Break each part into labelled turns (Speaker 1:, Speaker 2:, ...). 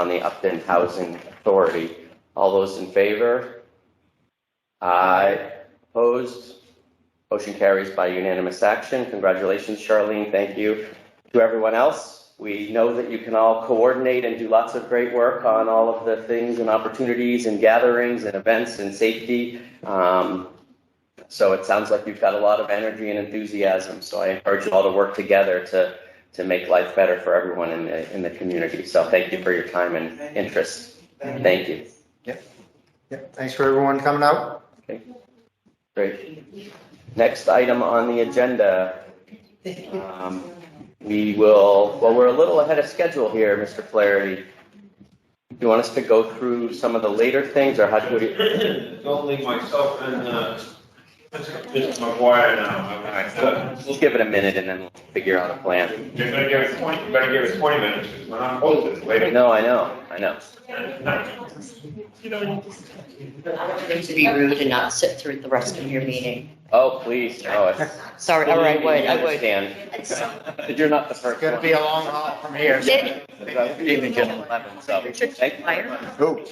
Speaker 1: on the Upton Housing Authority. All those in favor? Aye. Opposed? Motion carries by unanimous action. Congratulations, Charlene. Thank you to everyone else. We know that you can all coordinate and do lots of great work on all of the things and opportunities and gatherings and events and safety. Um, so it sounds like you've got a lot of energy and enthusiasm. So I encourage you all to work together to to make life better for everyone in the in the community. So thank you for your time and interest. Thank you.
Speaker 2: Yep, thanks for everyone coming out.
Speaker 1: Great. Next item on the agenda. Um, we will. Well, we're a little ahead of schedule here, Mr. Flaherty. Do you want us to go through some of the later things, or how do we?
Speaker 3: It's only myself and, uh, Mr. McGuire now.
Speaker 1: All right, so we'll give it a minute and then we'll figure out a plan.
Speaker 3: You're gonna give us twenty, you better give us twenty minutes, because we're not posted later.
Speaker 1: No, I know, I know.
Speaker 4: to be rude and not sit through the rest of your meeting.
Speaker 1: Oh, please, no. it's-
Speaker 4: Sorry, all right, I would, I would.
Speaker 1: Understand. But you're not the
Speaker 2: It's
Speaker 1: first
Speaker 2: gonna be
Speaker 1: one.
Speaker 2: a long haul from here. so-
Speaker 4: Did-
Speaker 1: Even just 11, so. thank you.
Speaker 4: Fire?
Speaker 2: Who?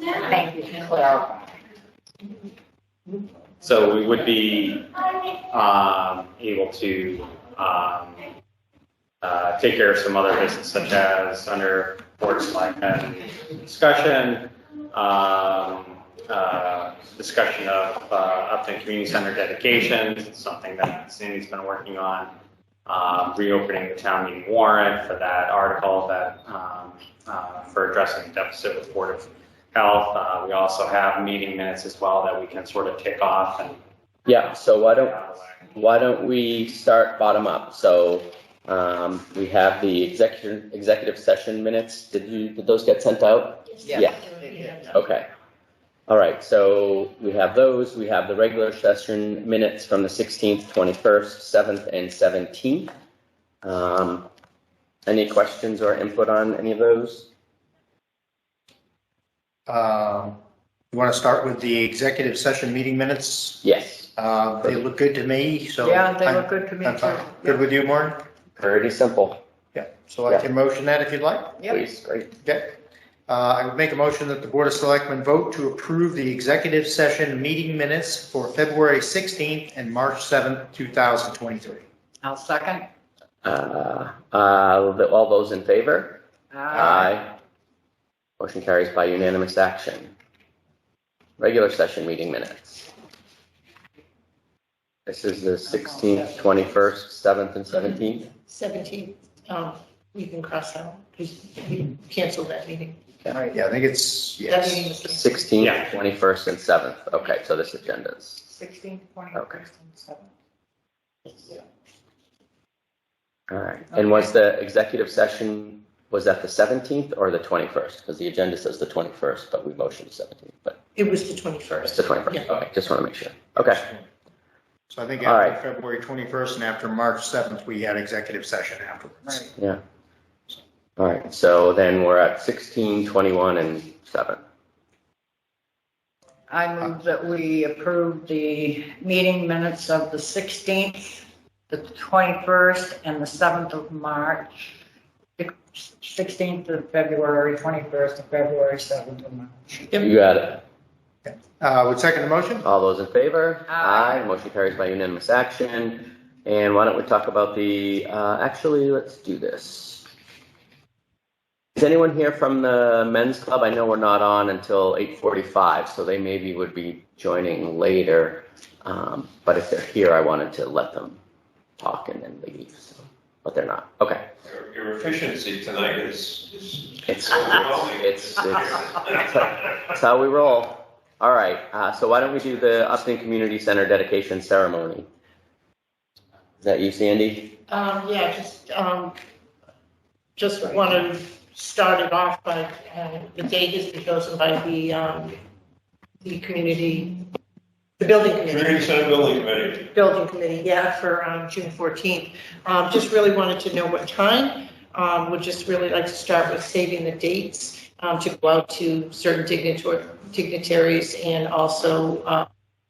Speaker 4: Thank you, Claire.
Speaker 5: So we would be um, able to um, uh, take care of some other business such as under board selectmen discussion, um, uh, discussion of uh, Upton Community Center dedications, it's something that Sandy's been working on, um, reopening the town meeting warrant for that article that, um, uh, for addressing deficit with Board of Health. Uh, We also have meeting minutes as well that we can sort of tick off and
Speaker 1: Yeah, so why don't,
Speaker 5: out of the way.
Speaker 1: why don't we start bottom up? So um, we have the executive, executive session minutes. Did you, did those get sent out? Yeah. Okay. All right, so we have those. We have the regular session minutes from the 16th, 21st, 7th, and 17th. Um, Any questions or input on any of those?
Speaker 2: Um, You want to start with the executive session meeting minutes?
Speaker 1: Yes.
Speaker 2: Uh, They look good to me, so.
Speaker 6: Yeah, they
Speaker 2: I'm-
Speaker 6: look good to me
Speaker 2: I'm fine.
Speaker 6: too.
Speaker 2: Good with you, Maureen?
Speaker 1: Pretty simple,
Speaker 2: Yeah, so I can motion that if you'd like.
Speaker 6: Yep.
Speaker 1: please. Great.
Speaker 2: Okay. Uh, I would make a motion that the Board of Selectmen vote to approve the executive session meeting minutes for February 16th and March 7th, 2023.
Speaker 6: I'll second.
Speaker 1: Uh, uh, the- All those in favor?
Speaker 6: Uh,
Speaker 1: Aye. Motion carries by unanimous action. Regular session meeting minutes. This is the 16th, 21st, 7th, and 17th.
Speaker 7: 17th, um, you can cross out, because we canceled that meeting.
Speaker 2: Yeah, I think it's,
Speaker 7: That
Speaker 2: yes.
Speaker 7: meeting was canceled.
Speaker 1: 16th,
Speaker 5: Yeah.
Speaker 1: 21st, and 7th. Okay, so this agenda's,
Speaker 6: 16, 20,
Speaker 1: Okay.
Speaker 6: 7.
Speaker 1: all right. And was the executive session, was that the 17th or the 21st? Because the agenda says the 21st, but we motioned the 17th, but
Speaker 7: It was the
Speaker 1: it's the
Speaker 7: 21st.
Speaker 1: 21st. Okay, just want to make sure. Okay,
Speaker 2: So I think
Speaker 1: All right.
Speaker 2: after February 21st and after March 7th, we had executive session afterwards.
Speaker 6: Right.
Speaker 1: all right. So then we're at 16, 21, and 7.
Speaker 6: I move that we approve the meeting minutes of the 16th, the 21st, and the 7th of March, 16th of February, 21st of February, 7th of March.
Speaker 1: You got it.
Speaker 2: Uh, Would second the motion?
Speaker 1: All those in favor?
Speaker 6: Aye.
Speaker 1: Motion carries by unanimous action. And why don't we talk about the, uh, actually, let's do this. Is anyone here from the men's club? I know we're not on until 8:45, so they maybe would be joining later. Um, But if they're here, I wanted to let them talk and then leave, so, but they're not. Okay.
Speaker 3: Your- Your efficiency tonight is, is
Speaker 1: It's,
Speaker 3: overwhelming.
Speaker 1: it's, it's, That's how we roll. All right, uh, so why don't we do the Upton Community Center dedication ceremony? Is that you, Sandy?
Speaker 7: Um, yeah, just, um, just want to start it off by, uh, the date has been chosen by the, um, the community, the building committee.
Speaker 3: Community Center Building Committee,
Speaker 7: building committee, yeah, for um, June 14th. Um, Just really wanted to know what time. Um, Would just really like to start with saving the dates um, to go out to certain dignitor- dignitaries and also uh,